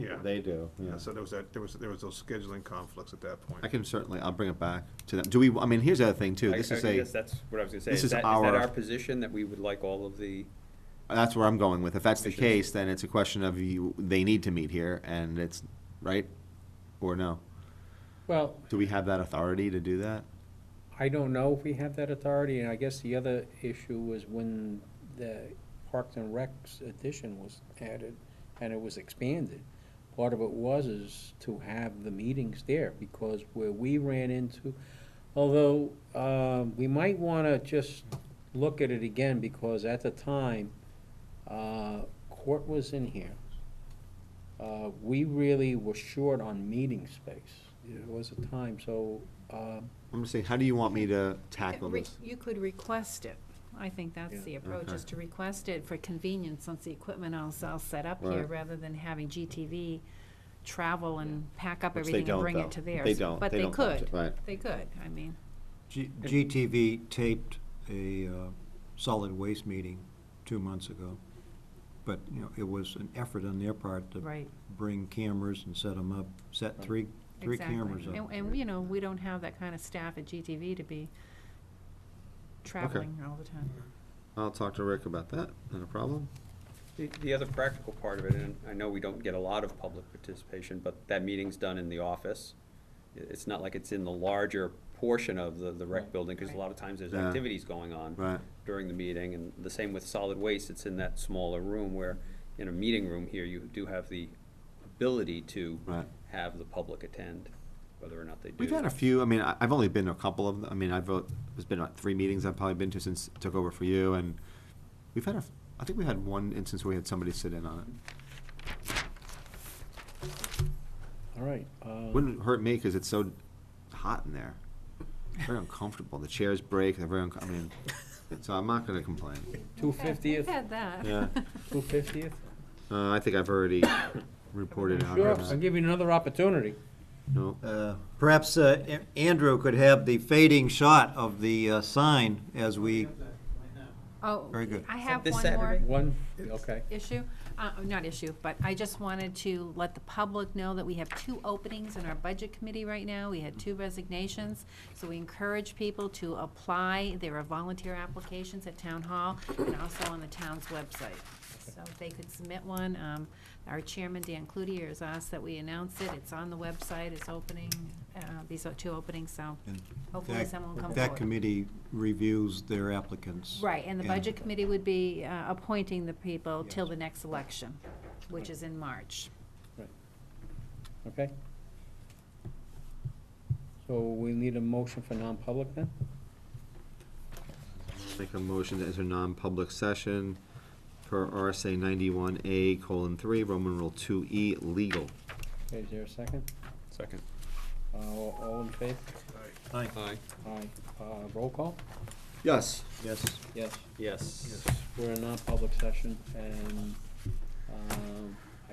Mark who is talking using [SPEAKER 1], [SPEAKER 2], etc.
[SPEAKER 1] Yeah,
[SPEAKER 2] They do,
[SPEAKER 1] yeah,
[SPEAKER 2] yeah.
[SPEAKER 1] so there was that, there was, there was those scheduling conflicts at that point.
[SPEAKER 2] I can certainly, I'll bring it back to them. Do we, I mean, here's the other thing too,
[SPEAKER 3] I-
[SPEAKER 2] this
[SPEAKER 3] I
[SPEAKER 2] is
[SPEAKER 3] guess
[SPEAKER 2] a,
[SPEAKER 3] That's what I was gonna say.
[SPEAKER 2] this
[SPEAKER 3] Is
[SPEAKER 2] is
[SPEAKER 3] that, is
[SPEAKER 2] our-
[SPEAKER 3] that our position, that we would like all of the,
[SPEAKER 2] that's where I'm going with. If that's the
[SPEAKER 3] Commissions.
[SPEAKER 2] case, then it's a question of you, they need to meet here and it's, right? Or no?
[SPEAKER 4] Well,
[SPEAKER 2] Do we have that authority to do that?
[SPEAKER 4] I don't know if we have that authority, and I guess the other issue was when the Parks and Recs addition was added and it was expanded. Part of it was is to have the meetings there, because where we ran into, although, um, we might wanna just look at it again, because at the time, uh, court was in here. Uh, we really were short on meeting space. It was a time, so, um,
[SPEAKER 2] I'm just saying, how do you want me to tackle
[SPEAKER 5] Re-
[SPEAKER 2] this?
[SPEAKER 5] You could request it. I think
[SPEAKER 4] Yeah.
[SPEAKER 5] that's the approach,
[SPEAKER 2] Okay.
[SPEAKER 5] is to request it for convenience, since the equipment is all set up here,
[SPEAKER 2] Right.
[SPEAKER 5] rather than having GTV travel and pack up
[SPEAKER 2] Which they
[SPEAKER 5] everything and
[SPEAKER 2] don't,
[SPEAKER 5] bring
[SPEAKER 2] though.
[SPEAKER 5] it to theirs.
[SPEAKER 2] They don't.
[SPEAKER 5] But
[SPEAKER 2] They
[SPEAKER 5] they
[SPEAKER 2] don't budget,
[SPEAKER 5] could.
[SPEAKER 2] right.
[SPEAKER 5] They could, I mean.
[SPEAKER 6] G- GTV taped a uh, solid waste meeting two months ago, but, you know, it was an effort on their part to
[SPEAKER 5] Right.
[SPEAKER 6] bring cameras and set them up, set three, three
[SPEAKER 5] exactly.
[SPEAKER 6] cameras up.
[SPEAKER 5] And, and, you know, we don't have that kind of staff at GTV to be traveling all the time.
[SPEAKER 2] I'll talk to Rick about that, not a problem.
[SPEAKER 3] the, the other practical part of it, and I know we don't get a lot of public participation, but that meeting's done in the office. I- It's not like it's in the larger portion of the, the rec building, because a lot of times there's
[SPEAKER 2] Yeah.
[SPEAKER 3] activities going on
[SPEAKER 2] Right.
[SPEAKER 3] during the meeting, and the same with solid waste, it's in that smaller room where, in a meeting room here, you do have the ability to
[SPEAKER 2] Right.
[SPEAKER 3] have the public attend, whether or not they do.
[SPEAKER 2] We've had a few, I mean, I, I've only been to a couple of, them. I mean, I've, uh, there's been like three meetings I've probably been to since I took over for you, and we've had a, I think we had one instance where we had somebody sit in on it.
[SPEAKER 4] All right. um,
[SPEAKER 2] Wouldn't hurt me, cause it's so hot in there, very uncomfortable, the chairs break, they're very, unco- I mean, so I'm not gonna complain.
[SPEAKER 4] Two fiftieth,
[SPEAKER 5] Had that.
[SPEAKER 2] Yeah.
[SPEAKER 4] two fiftieth?
[SPEAKER 2] Uh, I think I've already reported out.
[SPEAKER 4] Sure, I'll give you another opportunity.
[SPEAKER 2] No,
[SPEAKER 6] Uh, Perhaps uh, A- Andrew could have the fading shot of the uh, sign as we,
[SPEAKER 5] Oh,
[SPEAKER 6] Very good.
[SPEAKER 5] I have
[SPEAKER 3] this
[SPEAKER 5] one more.
[SPEAKER 3] Saturday?
[SPEAKER 4] One, okay.
[SPEAKER 5] issue, uh, not issue, but I just wanted to let the public know that we have two openings in our budget committee right now. We had two resignations, so we encourage people to apply. There are volunteer applications at town hall and also on the town's website. So if they could submit one, um, our chairman, Dan Cloutier, has asked that we announce it. It's on the website, it's opening, uh, these are two openings, so
[SPEAKER 6] And
[SPEAKER 5] hopefully
[SPEAKER 6] that,
[SPEAKER 5] someone will come
[SPEAKER 6] that
[SPEAKER 5] forward.
[SPEAKER 6] committee reviews their applicants.
[SPEAKER 5] Right, and the
[SPEAKER 6] and-
[SPEAKER 5] budget committee would be uh, appointing the people till the next election, which is in March.
[SPEAKER 4] Okay. So we need a motion for non-public then?
[SPEAKER 2] make a motion to enter non-public session per RSA ninety-one A colon three, Roman rule two E, legal.
[SPEAKER 4] Okay, is there a second?
[SPEAKER 3] Second.
[SPEAKER 4] Uh, All all in favor?
[SPEAKER 6] Aye.
[SPEAKER 3] Aye.
[SPEAKER 4] Aye. Uh, Roll call?
[SPEAKER 2] Yes.
[SPEAKER 6] Yes.
[SPEAKER 4] Yes.
[SPEAKER 3] Yes.
[SPEAKER 4] We're in non-public session and um,